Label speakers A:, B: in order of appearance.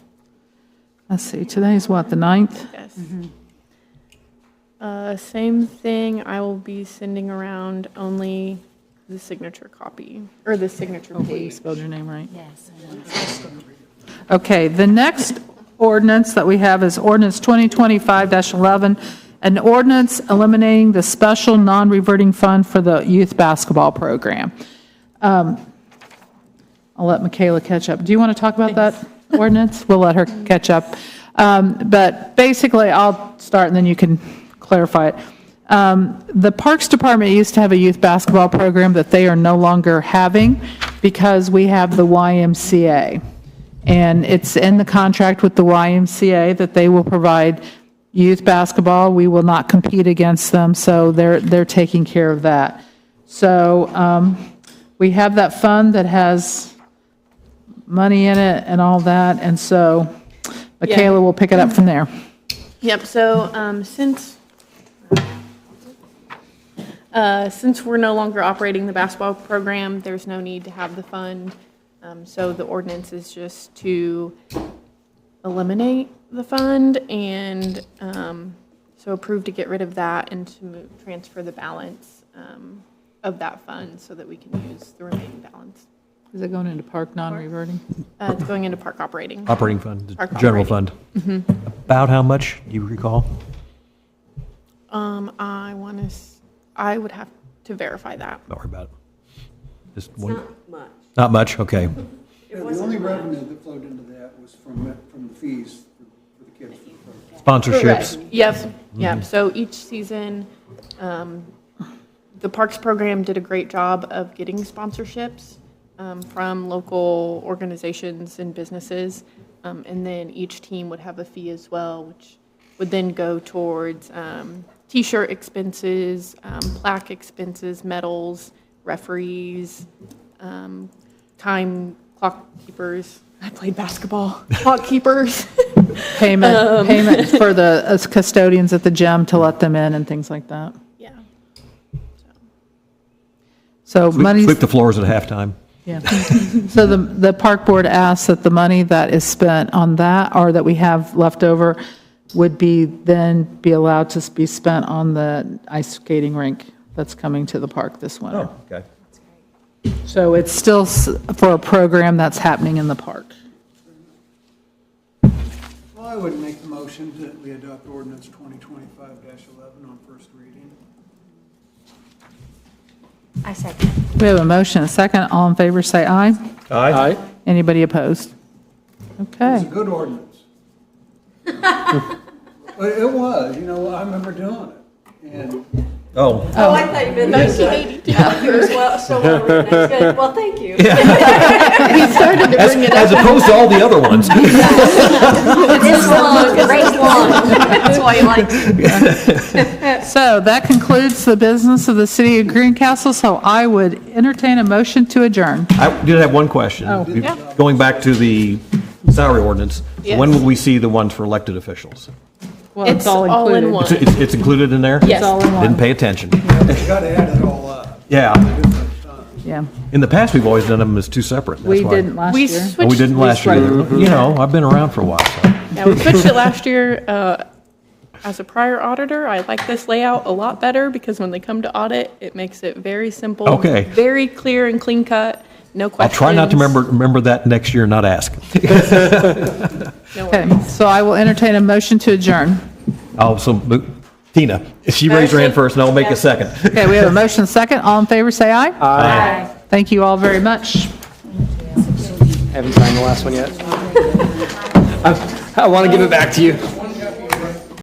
A: Let's see, today is what, the 9th?
B: Yes. Mm-hmm. Uh, Same thing, I will be sending around only the signature copy, or the signature
A: Hopefully you
B: page.
A: spelled your name right.
C: Yes.
A: Okay, the next ordinance that we have is ordinance 2025-11, an ordinance eliminating the special non-reverting fund for the youth basketball program. Um, I'll let Michaela catch up. Do you want to talk about that ordinance? We'll let her catch up. Um, But basically, I'll start and then you can clarify it. Um, The Parks Department used to have a youth basketball program that they are no longer having because we have the YMCA. And it's in the contract with the YMCA that they will provide youth basketball. We will not compete against them, so they're, they're taking care of that. So um, we have that fund that has money in it and all that, and so Michaela will pick it up from there.
B: Yep, so um, since, uh, since we're no longer operating the basketball program, there's no need to have the fund. Um, So the ordinance is just to eliminate the fund and um, so approve to get rid of that and to move, transfer the balance um, of that fund so that we can use the remaining balance.
A: Is it going into park non-reverting?
B: Uh, It's going into park operating.
D: Operating fund,
B: Our
D: general fund.
B: operating. Mm-hmm.
D: About how much, do you recall?
B: Um, I want to, I would have to verify that.
D: Don't worry about it. Just one,
C: Not much.
D: not much, okay.
E: Yeah, the only revenue that flowed into that was from, from the fees for the kids for the program.
D: Sponsorships,
B: Correct. Yep, yep. So each season, um, the Parks Program did a great job of getting sponsorships um, from local organizations and businesses. Um, And then each team would have a fee as well, which would then go towards um, T-shirt expenses, um, plaque expenses, medals, referees, um, time clock keepers. I played basketball, clock keepers.
A: Payment, payment for the uh, custodians at the gym to let them in and things like that.
B: Yeah.
A: So money's.
D: sweep the floors at halftime.
A: Yeah. So the, the park board asks that the money that is spent on that, or that we have left over, would be, then be allowed to be spent on the ice skating rink that's coming to the park this winter.
D: Oh, okay.
A: So it's still s- for a program that's happening in the park.
E: Well, I would make the motion that we adopt ordinance twenty twenty-five eleven on first reading.
C: I second.
A: We have a motion, and a second. All in favor, say aye.
D: Aye.
A: Anybody opposed?
E: It's a
A: Okay.
E: good ordinance. It it was, you know, I remember doing it, and
D: Oh,
C: Oh, I thought you meant. Well, so well written. That's good. Well, thank you.
D: as as opposed to all the other ones.
C: This one, great one. That's why you like.
A: So that concludes the business of the city of Greencastle, so I would entertain a motion to adjourn.
D: I did have one question. Going back to the salary ordinance, when will we see the ones for elected officials?
A: Well,
B: It's all in
A: included.
B: one.
D: It's, it's it's included in there?
B: Yes.
A: all in one.
D: Didn't pay attention.
E: you gotta add it all up.
D: Yeah.
A: Yeah,
D: In the past, we've always done them as two separate. that's
A: we
D: why.
A: didn't last
B: We
A: year.
D: And
B: switched.
D: Oh, we didn't last year. either. You know, I've been around for a while, so.
B: Yeah, we switched it last year. uh, As a prior auditor, I like this layout a lot better because when they come to audit, it makes it very simple.
D: Okay.
B: Very clear and clean cut, no
D: I'll
B: questions.
D: try not to remember, remember that next year, not ask.
B: No
A: Okay,
B: worries.
A: so I will entertain a motion to adjourn.
D: I'll so Tina, she raised her hand first, and I'll make a second.
A: Okay, we have a motion second. All in favor, say aye. Aye. Thank you all very much.
F: Haven't signed the last one yet. I, I want to give it back to you.